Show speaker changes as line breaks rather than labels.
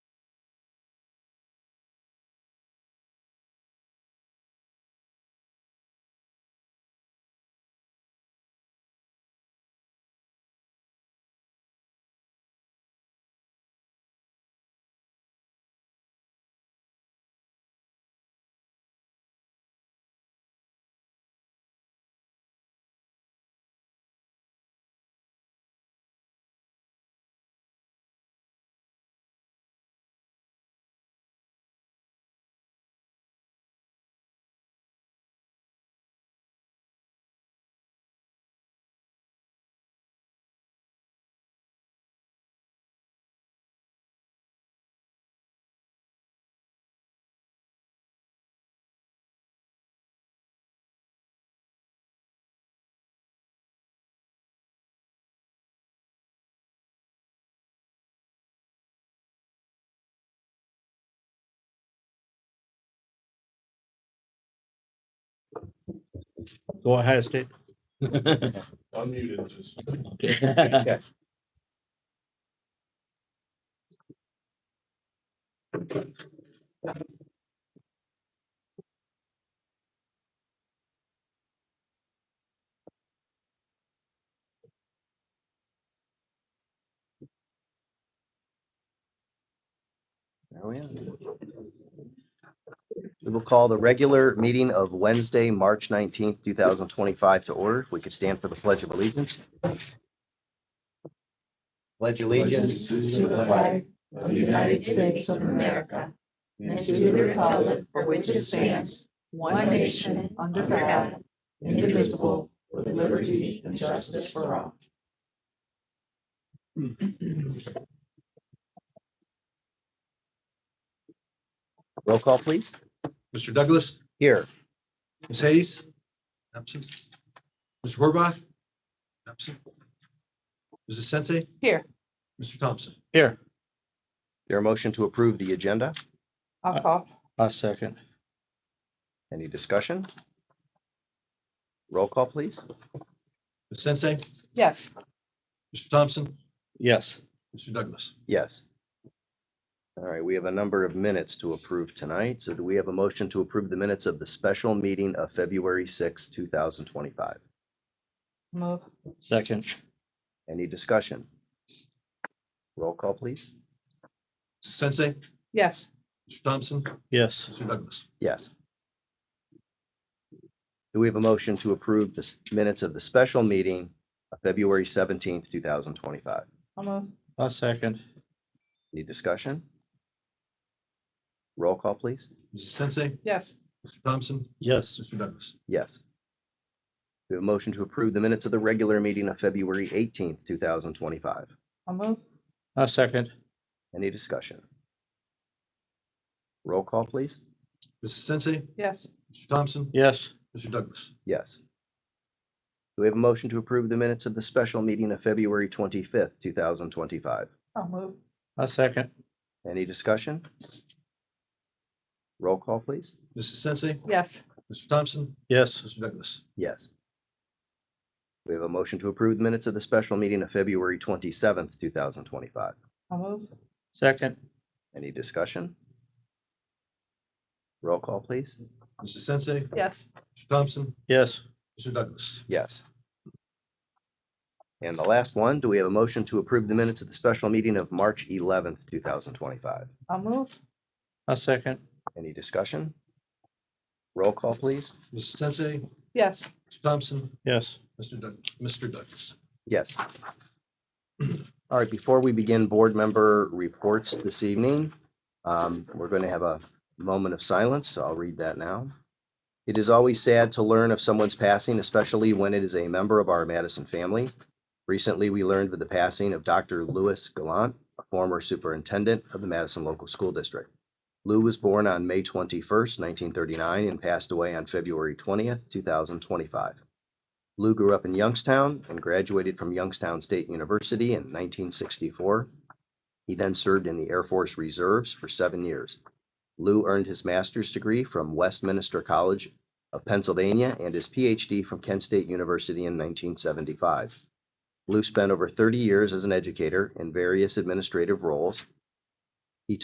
Go ahead, State.
Unmuted, just.
There we are. Oh, We will call the regular meeting of Wednesday, March nineteenth, two thousand twenty-five to order. If We could stand for the Pledge of Allegiance. Pledge allegiance. to the flag
of the United States of America
and to the republic for which it stands, one nation, under God, indivisible, with liberty and justice for all.
Roll call, please.
Mr. Douglas,
Here.
Ms. Hayes, absent. Mr. Horvath, absent. Mrs. Sensei.
Here.
Mr. Thompson.
Here,
There a motion to approve the agenda?
I'll call.
a second.
Any discussion? Roll call, please.
Ms. Sensei,
Yes,
Mr. Thompson,
Yes,
Mr. Douglas.
Yes. All right, we have a number of minutes to approve tonight. So do we have a motion to approve the minutes of the special meeting of February sixth, two thousand twenty-five?
move.
second.
Any discussion? Roll call, please.
Mrs. Sensei,
Yes,
Mr. Thompson,
Yes,
Mr. Douglas.
Yes. Do we have a motion to approve the s- minutes of the special meeting of February seventeenth, two thousand twenty-five?
I'll move.
a second.
Any discussion? Roll call, please.
Mrs. Sensei,
Yes,
Mr. Thompson,
Yes,
Mr. Douglas.
Yes. We have a motion to approve the minutes of the regular meeting of February eighteenth, two thousand twenty-five.
I'll move.
a second.
Any discussion? Roll call, please.
Mrs. Sensei,
Yes,
Mr. Thompson,
Yes,
Mr. Douglas.
Yes. Do we have a motion to approve the minutes of the special meeting of February twenty-fifth, two thousand twenty-five?
I'll move.
a second.
Any discussion? Roll call, please.
Mrs. Sensei,
Yes,
Mr. Thompson,
Yes,
Mr. Douglas.
Yes. We have a motion to approve the minutes of the special meeting of February twenty-seventh, two thousand twenty-five.
I'll move.
second.
Any discussion? Roll call, please.
Mrs. Sensei,
Yes,
Mr. Thompson,
Yes,
Mr. Douglas.
Yes. And the last one, do we have a motion to approve the minutes of the special meeting of March eleventh, two thousand twenty-five?
I'll move.
a second.
Any discussion? Roll call, please.
Mrs. Sensei,
Yes,
Mr. Thompson,
Yes,
Mr. Doug, Mr. Douglas.
Yes. All right, before we begin board member reports this evening, um, we're going to have a moment of silence, so I'll read that now. It is always sad to learn of someone's passing, especially when it is a member of our Madison family. Recently, we learned of the passing of Dr. Louis Gallant, a former superintendent of the Madison Local School District. Lou was born on May 21st, 1939, and passed away on February 20th, 2025. Lou grew up in Youngstown and graduated from Youngstown State University in 1964. He then served in the Air Force Reserves for seven years. Lou earned his master's degree from Westminster College of Pennsylvania and his PhD from Kent State University in 1975. Lou spent over 30 years as an educator in various administrative roles,